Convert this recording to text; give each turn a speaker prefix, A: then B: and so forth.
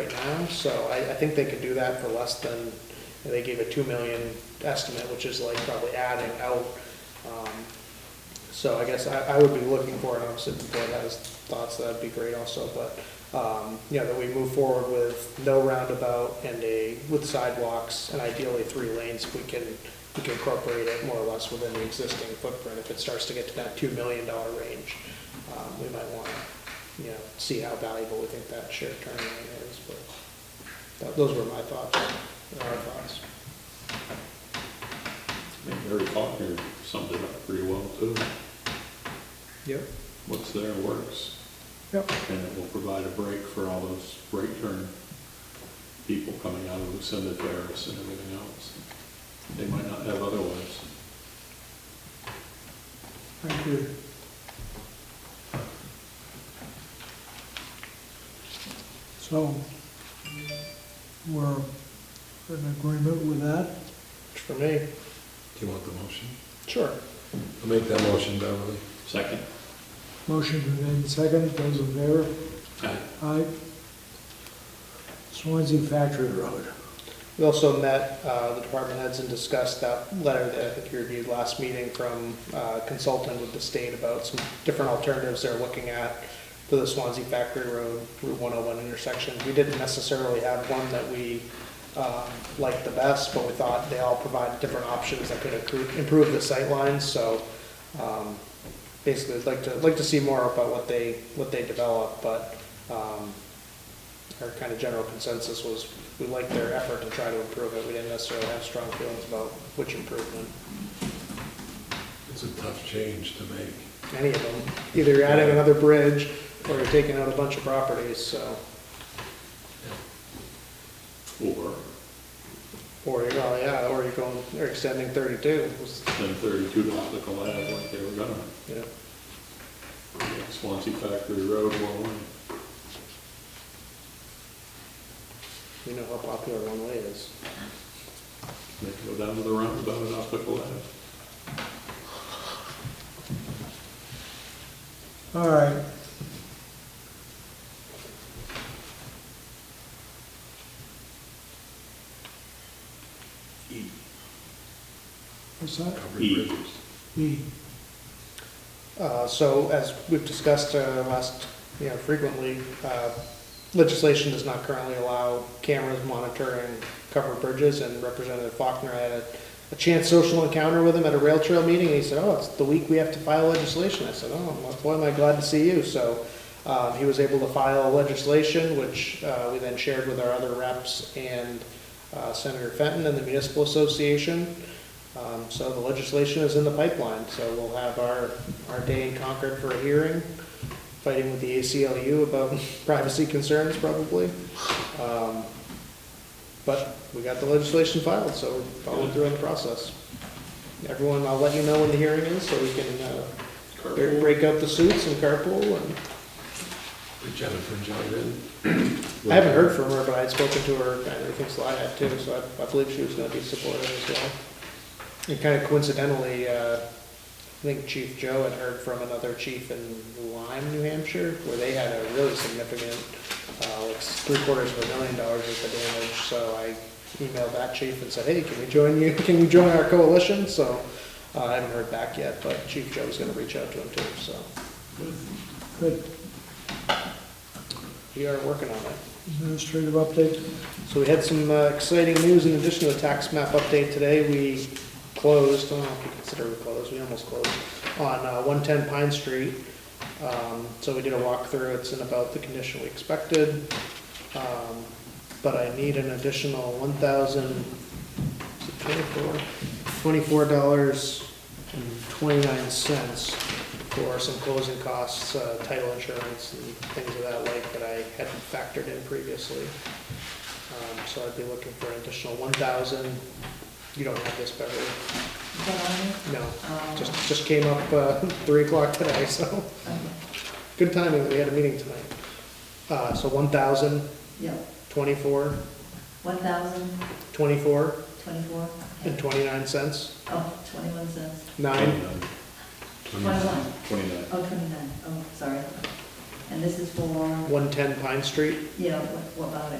A: now, so I, I think they could do that for less than, they gave a two million estimate, which is like probably adding out. um, So I guess I, I would be looking for, it. obviously, if the board has thoughts, that'd be great also, but, um, you know, that we move forward with no roundabout and a, with sidewalks, and ideally three lanes, if we can, we can incorporate it more or less within the existing footprint. If it starts to get to that two million dollar range, um, we might wanna, you know, see how valuable we think that shared turn lane is, but that, those were my thoughts, our thoughts.
B: Harry Faulkner summed it up pretty well too.
A: Yep.
B: What's there works,
A: Yep.
B: and it will provide a break for all those break turn people coming out of Lucinda Terrace and everything else. They might not have otherwise.
A: Thank you.
C: So we're in agreement with that.
A: For me,
D: Do you want the motion?
A: sure.
D: I'll make that motion, Beverly.
B: Second?
C: Motion been made in second, those in favor?
B: Aye.
C: Aye. Swansea Factory Road.
A: We also met, uh, the department heads and discussed that letter that I think you reviewed last meeting from uh, consultant with the state about some different alternatives they're looking at for the Swansea Factory Road Route 101 intersection. We didn't necessarily have one that we um, liked the best, but we thought they all provide different options that could accru- improve the sightlines, so um, basically, I'd like to, like to see more about what they, what they develop, but um, our kind of general consensus was we liked their effort to try to improve it. We didn't necessarily have strong feelings about which improvement,
D: It's a tough change to make.
A: any of them. Either you're adding another bridge or you're taking out a bunch of properties, so,
B: Or
A: or you're, oh yeah, or you're going, or extending thirty-two. was-
B: then thirty-two to Optical Ave like they were gonna.
A: you know.
B: Swansea Factory Road, one way.
A: You know how popular one way is.
B: They can go down to the roundabout at Optical Ave.
C: All right.
B: E.
C: What's that?
D: Covered
B: E.
D: bridges.
C: E.
A: Uh, So as we've discussed uh, last, you know, frequently, uh, legislation does not currently allow cameras monitoring covered bridges, and Representative Faulkner had a- a chance social encounter with him at a rail trail meeting, and he said, oh, it's the week we have to file legislation. I said, oh, well, boy, am I glad to see you. So um, he was able to file legislation, which uh, we then shared with our other reps and uh, Senator Fenton and the Municipal Association. Um, So the legislation is in the pipeline, so we'll have our, our day in Concord for a hearing, fighting with the ACLU about privacy concerns probably. Um, But we got the legislation filed, so we're following through on the process. Everyone, I'll let you know when the hearing is, so we can uh, break-
B: Carpool.
A: break up the suits and carpool. and-
D: Did Jennifer join in?
A: I haven't heard from her, but I had spoken to her, and I think Sly had too, so I- I believe she was gonna be supportive as well. And kind of coincidentally, uh, I think Chief Joe had heard from another chief in Lyme, New Hampshire, where they had a really significant, uh, like three quarters of a million dollars worth of damage, so I emailed that chief and said, hey, can we join you, can you join our coalition? So, uh, I haven't heard back yet, but Chief Joe's gonna reach out to him too, so
C: Good.
A: we are working on it.
C: Administrative update.
A: So we had some uh, exciting news in addition to the tax map update today. We closed, I don't know if you consider we closed, we almost closed, on uh, 110 Pine Street. Um, So we did a walkthrough, it's in about the condition we expected. Um, But I need an additional 1,024, $24.29 for some closing costs, uh, title insurance and things of that like that I hadn't factored in previously. Um, So I'd be looking for an additional one thousand. You don't have this, Beverly? No, just, just came up uh, three o'clock today, so
E: Um,
A: good timing, that we had a meeting tonight. Uh, So one thousand,
E: Yeah,
A: twenty-four,
E: one thousand,
A: twenty-four,
E: twenty-four,
A: and twenty-nine cents,
E: oh, twenty-one cents,
A: nine,
E: twenty-one,
B: Twenty-nine.
E: oh, twenty-nine, oh, sorry. And this is for,
A: one-ten Pine Street.
E: yeah, what what about it?